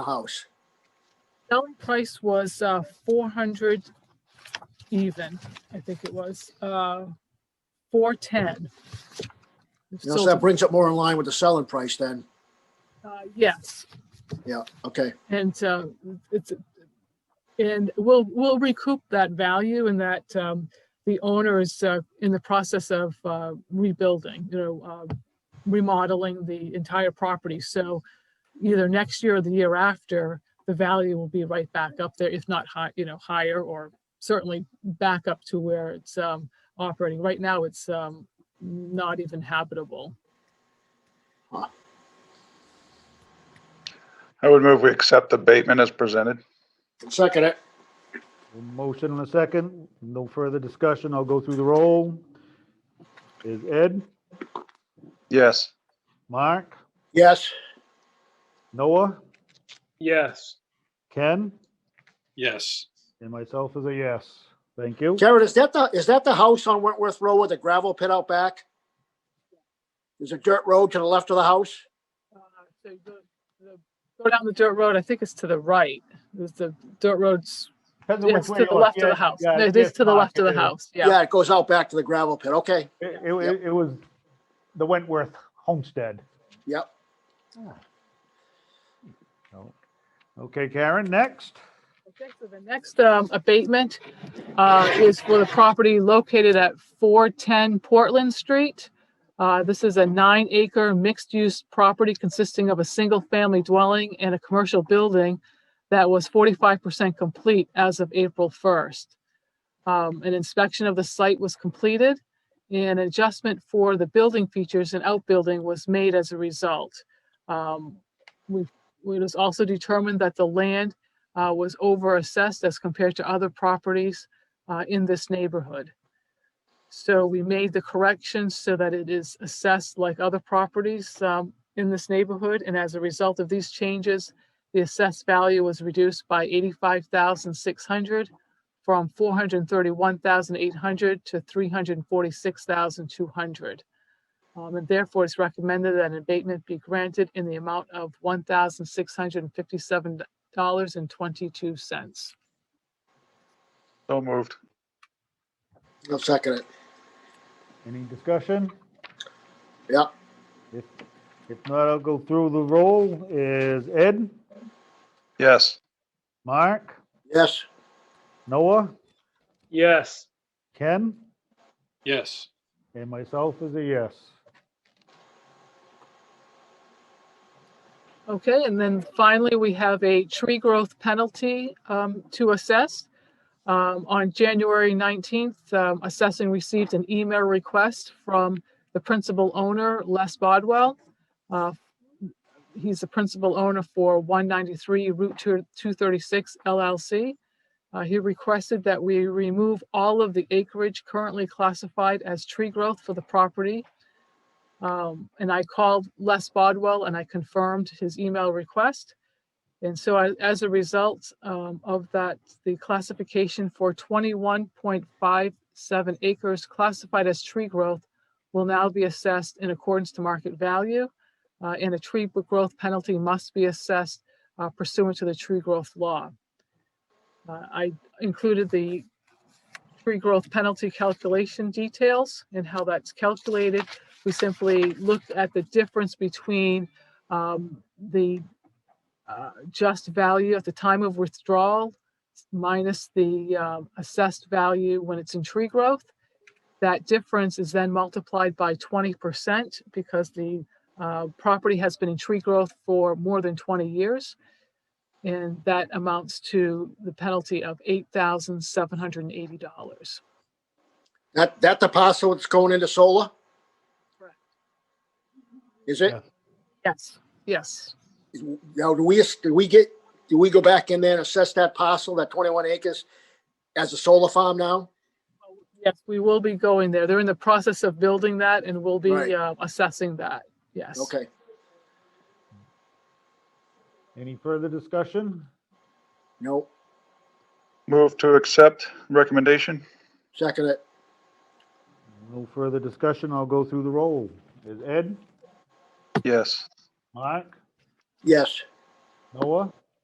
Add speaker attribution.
Speaker 1: the house.
Speaker 2: Selling price was uh, four hundred even, I think it was, uh, four ten.
Speaker 1: You know, so that brings it more in line with the selling price then.
Speaker 2: uh, Yes,
Speaker 1: Yeah, okay,
Speaker 2: and uh, it's, and we'll, we'll recoup that value and that um, the owner is uh, in the process of uh, rebuilding, you know, uh, remodeling the entire property. So either next year or the year after, the value will be right back up there, if not high, you know, higher or certainly back up to where it's um, operating. Right now, it's um, not even habitable.
Speaker 3: I would move we accept the abatement as presented.
Speaker 1: second it.
Speaker 4: Motion and a second, no further discussion, I'll go through the roll. Is Ed,
Speaker 3: Yes.
Speaker 4: Mark,
Speaker 1: Yes,
Speaker 4: Noah,
Speaker 5: Yes.
Speaker 4: Ken,
Speaker 5: Yes.
Speaker 4: and myself is a yes. Thank you.
Speaker 1: Jared, is that the, is that the house on Wentworth Road with the gravel pit out back? There's a dirt road to the left of the house?
Speaker 2: Uh, So you go the- go down the dirt road, I think it's to the right. There's the dirt roads,
Speaker 4: Depends on
Speaker 2: yes,
Speaker 4: which way
Speaker 2: to
Speaker 4: you
Speaker 2: the
Speaker 4: look.
Speaker 2: left of
Speaker 4: Yeah,
Speaker 2: the house.
Speaker 4: yeah,
Speaker 2: No, It is to the
Speaker 4: Mark,
Speaker 2: left of the
Speaker 4: it is.
Speaker 2: house, yeah.
Speaker 1: Yeah, it goes out back to the gravel pit, okay,
Speaker 4: It, it, it- it was the Wentworth Homestead.
Speaker 1: yep.
Speaker 4: Okay, Karen, next.
Speaker 2: Okay, so The next um, abatement uh, is for the property located at 410 Portland Street. Uh, This is a nine acre mixed use property consisting of a single family dwelling and a commercial building that was 45% complete as of April 1st. Um, An inspection of the site was completed and adjustment for the building features and outbuilding was made as a result. Um, we- It was also determined that the land uh, was overassessed as compared to other properties uh, in this neighborhood. So we made the corrections so that it is assessed like other properties um, in this neighborhood. And as a result of these changes, the assessed value was reduced by 85,600 from 431,800 to 346,200. Um, And therefore, it's recommended that an abatement be granted in the amount of $1,657 dollars and twenty-two cents.
Speaker 3: So moved.
Speaker 1: I'll second it.
Speaker 4: Any discussion?
Speaker 1: Yep.
Speaker 4: If, if not, I'll go through the roll. Is Ed,
Speaker 3: Yes.
Speaker 4: Mark,
Speaker 1: Yes,
Speaker 4: Noah,
Speaker 5: Yes.
Speaker 4: Ken,
Speaker 5: Yes.
Speaker 4: and myself is a yes.
Speaker 2: Okay, and then finally, we have a tree growth penalty um, to assess. Um, On January 19th, um, assessing received an email request from the principal owner, Les Bodwell. Uh, He's the principal owner for 193 Route 2- 236 LLC. Uh, He requested that we remove all of the acreage currently classified as tree growth for the property Um, and I called Les Bodwell and I confirmed his email request. And so I- as a result um, of that, the classification for 21.57 acres classified as tree growth will now be assessed in accordance to market value. uh, And a tree b- growth penalty must be assessed uh, pursuant to the tree growth law. Uh, I included the tree growth penalty calculation details and how that's calculated. We simply looked at the difference between um, the uh, just value at the time of withdrawal minus the um, assessed value when it's in tree growth. That difference is then multiplied by 20% because the uh, property has been in tree growth for more than 20 years. And that amounts to the penalty of $8,780.
Speaker 1: that, that the parcel that's going into solar?
Speaker 2: Correct.
Speaker 1: Is it?
Speaker 2: Yes, yes.
Speaker 1: Now, do we, do we get, do we go back in there and assess that parcel, that twenty-one acres as a solar farm now?
Speaker 2: Yes, we will be going there. They're in the process of building that and we'll
Speaker 1: Right.
Speaker 2: be uh, assessing that. Yes.
Speaker 1: Okay,
Speaker 4: Any further discussion?
Speaker 1: no,
Speaker 3: Move to accept recommendation.
Speaker 1: second it.
Speaker 4: No further discussion, I'll go through the roll. Is Ed,
Speaker 3: Yes.
Speaker 4: Mark,
Speaker 1: Yes,
Speaker 4: Noah,